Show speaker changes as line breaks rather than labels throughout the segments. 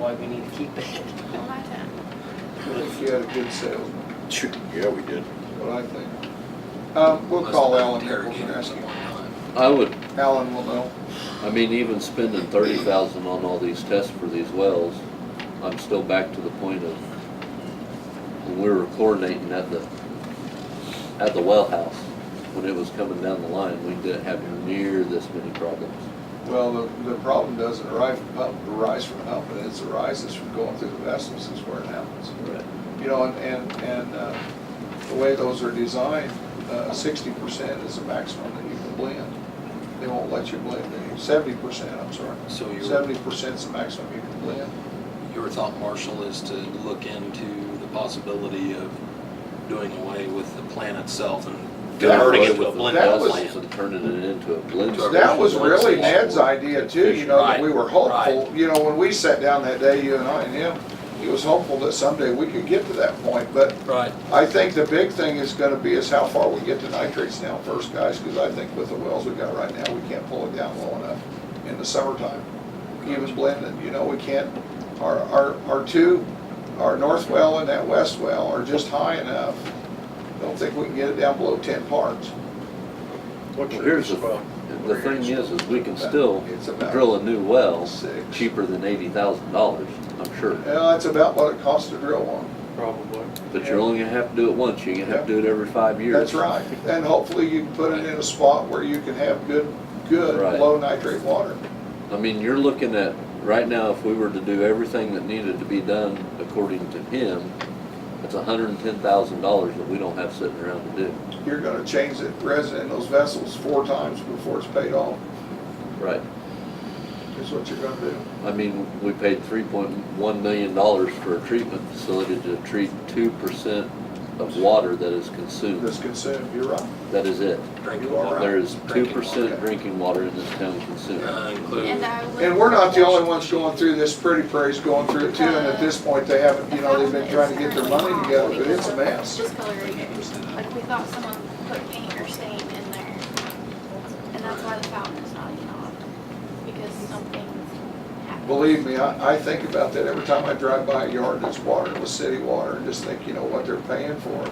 keep it.
Well, I don't.
I think you had a good salesman,
Shoot, Yeah, we did.
what I think. Um, we'll call Alan Nichols and ask him.
I would,
Alan will know.
I mean, even spending thirty thousand on all these tests for these wells, I'm still back to the point of when we were chlorinating at the, at the well house, when it was coming down the line, we didn't have near this many problems.
Well, the, the problem doesn't arise from pumping, arise from pumping, it arises from going through the vessels is where it happens.
Right.
You know, and, and, and uh, the way those are designed, uh, sixty percent is the maximum that you can blend. They won't let you blend, seventy percent, I'm sorry.
So Oh, you're-
Seventy percent is the maximum you can blend.
Your thought, Marshall, is to look into the possibility of doing away with the plant itself and
That
converting it
was-
with a blended
that was-
plant.
And turning it into a blend.
So
That was really
Right.
Ned's idea too, you know, that we were hopeful,
Right.
you know, when we sat down that day, you and I and him, he was hopeful that someday we could get to that point, but
Right.
I think the big thing is gonna be is how far we get to nitrates now first, guys, because I think with the wells we got right now, we can't pull it down low enough in the summertime. Even blending, you know, we can't, our, our, our two, our north well and that west well are just high enough. Don't think we can get it down below ten parts.
What's
Well,
your
here's the,
spot?
the thing is, is we can still
It's about-
drill a new well
Six.
cheaper than eighty thousand dollars, I'm sure.
Yeah, that's Uh, about what it costs to drill one.
Probably.
But you're only gonna have to do it once, you're gonna have to do it every five years.
That's right. And hopefully you can put it in a spot where you can have good, good,
Right.
low nitrate water.
I mean, you're looking at, right now, if we were to do everything that needed to be done according to him, it's hundred and ten thousand dollars that we don't have sitting around to do.
You're gonna change the resin in those vessels four times before it's paid off,
Right.
is what you're gonna do.
I mean, we paid three point one million dollars for a treatment facility to treat two percent of water that is consumed.
This consumed, you're right.
That is it.
Drinking
You are
water.
There is two
Drinking
percent
water.
drinking water in this town consumed.
Uh, Including.
And I would-
And we're not the only ones going through this. Pretty Prairie's going through it too, and at this point, they haven't, you know, they've been trying to get their money together, but it's a mess.
Discoloration. Like, we thought someone put paint or stain in there. And that's why the fountain is not even on, because something happened.
Believe me, I, I think about that every time I drive by a yard that's watered with city water, and just think, you know, what they're paying for.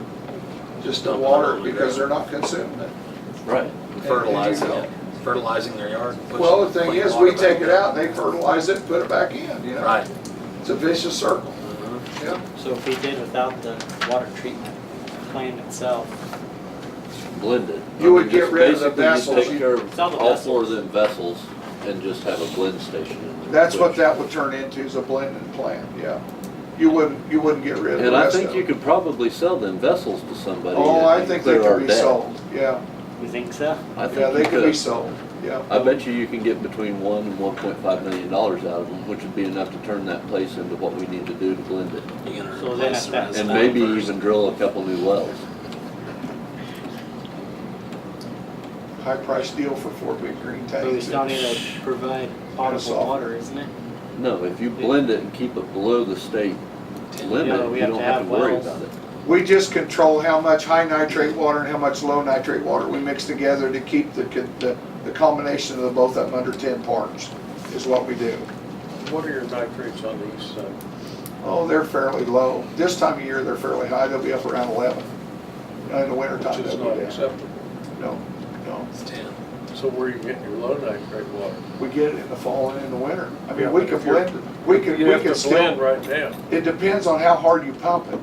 Just the
Dumping it
water,
on the
because
ground.
they're not consuming it.
Right.
Fertilizing it, fertilizing their yard. pushing
Well, the thing
clean
is,
water
we
back
take it
in.
out, they fertilize it, and put it back in, you know?
Right.
It's a vicious circle,
Mm-hmm.
yeah.
So if we did without the water treatment plant itself,
Blended.
You would get rid of the
Basically,
vessels.
just take care
Sell
of
the
all four of them vessels and just have a blend station in there.
That's what
which-
that would turn into, is a blending plant, yeah. You wouldn't, you wouldn't get rid of the
And I
rest of
think you
it.
could probably sell them vessels to somebody.
Oh, I
and
think they
clear our
could be
debt.
sold, yeah,
you think so?
I
yeah,
think
they
you
could be
could.
sold, yeah.
I bet you you can get between one and one point five million dollars out of them, which would be enough to turn that place into what we need to do to blend it.
You gonna
So then
replace
at
the
that-
rest
And
of it
maybe
first.
even drill a couple new wells.
High-priced deal for four big green
But we
tanks.
still need to provide potable
Aerosol.
water, isn't it?
No, if you blend it and keep it below the state
Yeah,
limit,
we
you
have
don't
to
have to
have
worry
wells.
about it.
We just control how much high nitrate water and how much low nitrate water we mix together to keep the, the, the combination of the both of them under ten parts, is what we do.
What are your nitrates on uh, the east side?
Oh, they're fairly low. This time of year, they're fairly high. They'll be up around 11. Now, In the wintertime,
Which is
they'll
not
go down.
acceptable.
No, no.
It's ten.
So where are you getting your low nitrate water?
We get it in the fall and in the winter. I
Yeah,
mean, we
but
can
if you're-
blend, it. we can,
You
we
have
can
to
still,
blend right now.
it depends on how hard you pump it,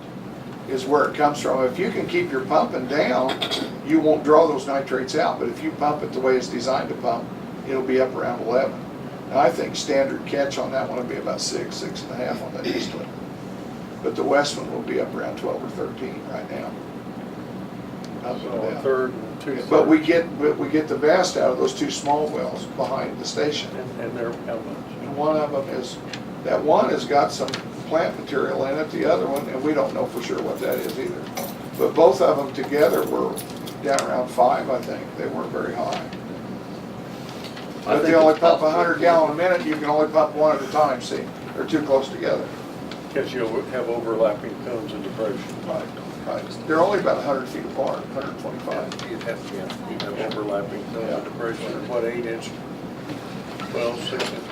is where it comes from. If you can keep your pumping down, you won't draw those nitrates out. But if you pump it the way it's designed to pump, it'll be up around 11. And I think standard catch on that one will be about six, six and a half on that east one. But the west one will be up around 12 or 13 right now. Up and
So a
down.
third and two thirds.
But we get, but we get the best out of those two small wells behind the station.
And and they're how much?
And one of them is, that one has got some plant material in it, the other one, and we don't know for sure what that is either. But both of them together were down around five, I think. They weren't very high.
I
But
think
they only
it's
pump
possible.
a hundred gallon a minute, you can only pump one at a time, see? They're too close together.
Because you'll have overlapping cones and depression.
Right, right. They're only about a hundred feet apart, hundred twenty-five.
You'd have to have overlapping cones
Yeah.
and depression, what, eight inch? Twelve, six inch